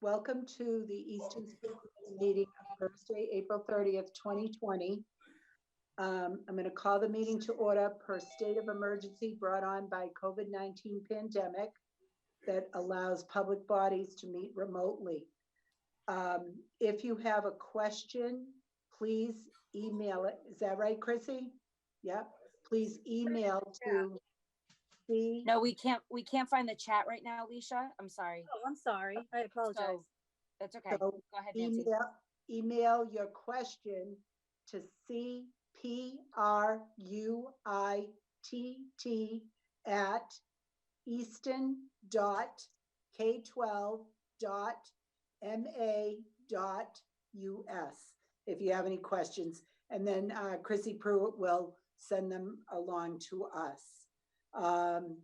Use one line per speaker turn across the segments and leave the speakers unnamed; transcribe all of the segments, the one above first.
Welcome to the Easton School Committee meeting on Thursday, April 30th, 2020. Um, I'm going to call the meeting to order per state of emergency brought on by COVID-19 pandemic that allows public bodies to meet remotely. Um, If you have a question, please email it. Is that right, Chrissy? Yep. Please email to the.
No, we can't, we can't find the chat right now, Alicia. I'm sorry.
Oh, I'm sorry. I apologize.
So, That's okay. Go ahead, Nancy.
email, email your question to cpruitt at easton dot k twelve dot ma dot us if you have any questions. And then uh, Chrissy Pruitt will send them along to us. Um,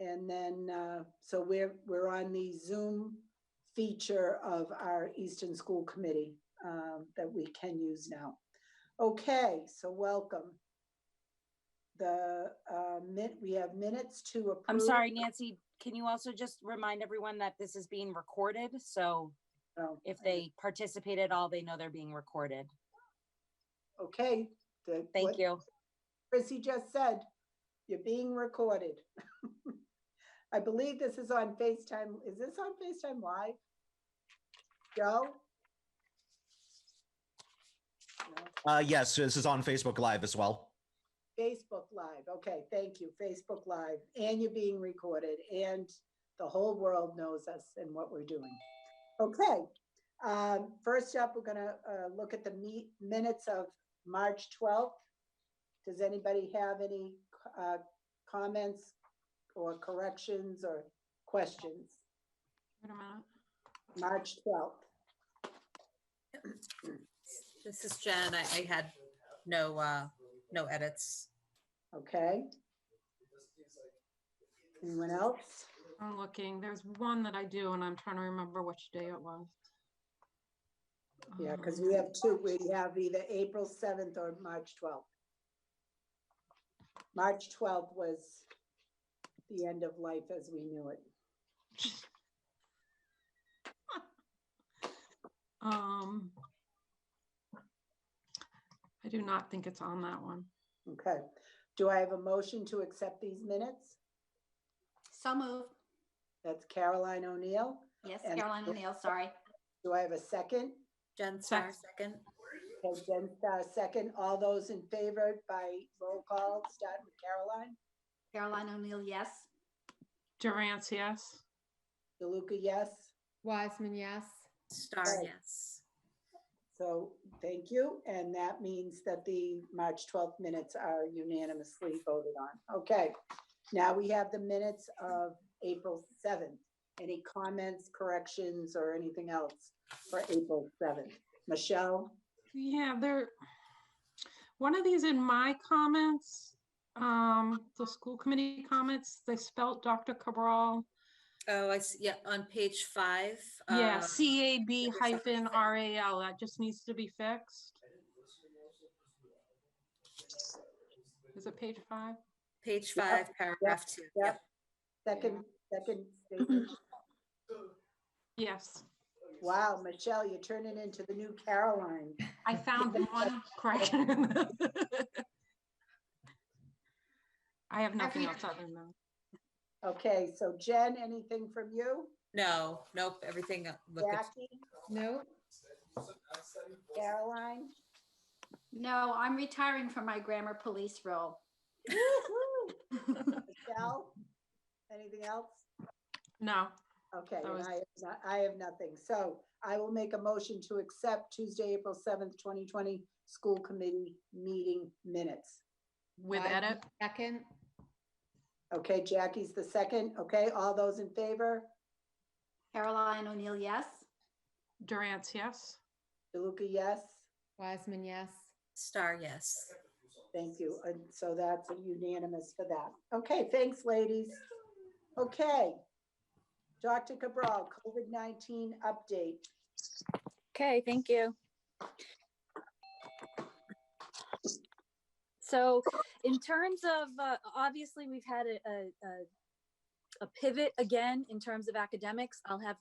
and then, uh, so we're, we're on the Zoom feature of our Eastern School Committee um, that we can use now. Okay, so welcome. The, uh, min- we have minutes to approve.
I'm sorry, Nancy. Can you also just remind everyone that this is being recorded? So
Oh,
if they participate at all, they know they're being recorded.
Okay. the-
Thank
what
you.
Chrissy just said, you're being recorded. I believe this is on FaceTime. Is this on FaceTime Live? Joe? No.
Uh, yes, this is on Facebook Live as well.
Facebook Live, okay, thank you, Facebook Live, and you're being recorded, and the whole world knows us and what we're doing. Okay, um, first up, we're gonna, uh, look at the meet, minutes of March twelfth. Does anybody have any, uh, comments or corrections or questions? March twelfth,
This is Jen. I, I had no, uh, no edits.
okay? Anyone else?
I'm looking. There's one that I do, and I'm trying to remember which day it was.
Yeah, because
Um,
we have two, we have either April seventh or March twelfth. March twelfth was the end of life as we knew it.
Um, I do not think it's on that one.
Okay, do I have a motion to accept these minutes?
So moved.
That's Caroline O'Neill.
Yes,
And-
Caroline O'Neill, sorry.
Do I have a second?
Jen Star,
Sec-
second.
Okay, Jen Starr, second. All those in favor by roll call, starting with Caroline.
Caroline O'Neill, yes.
Durant's, yes.
DeLuca, yes.
Wiseman, yes.
Star,
Right.
yes.
So thank you. And that means that the March 12th minutes are unanimously voted on. Okay. Now we have the minutes of April 7th. Any comments, corrections, or anything else for April 7th? Michelle?
Yeah, there, one of these in my comments, um, the school committee comments, they spelt Dr. Cabral.
Oh, I see. Yeah, on page five.
Yeah,
um,
C A B
there's something
hyphen
there.
R A L. That just needs to be fixed. Is it page five?
Page
Yep,
five, paragraph two. Yep.
Second, second statement.
Yes.
Wow, Michelle, you're turning into the new Caroline.
I found one correction. I have nothing else other than that.
Okay, so Jen, anything from you?
No, nope, everything uh, looked good.
Jackie,
No,
Caroline?
No, I'm retiring from my grammar police role.
Michelle? Anything else?
No,
Okay,
That
and
was-
I, have no- I have nothing. So I will make a motion to accept Tuesday, April seventh, twenty twenty, school committee meeting minutes.
with
Wiseman,
edit,
Second,
Okay, Jackie's the second. Okay, all those in favor?
Caroline O'Neill, yes.
Durant's, yes.
DeLuca, yes.
Wiseman, yes.
Star, yes.
Thank you. And so that's unanimous for that. Okay, thanks, ladies. Okay. Dr. Cabral, COVID-19 update.
Okay, thank you. So in terms of, uh, obviously, we've had a, a, a- a pivot again in terms of academics. I'll have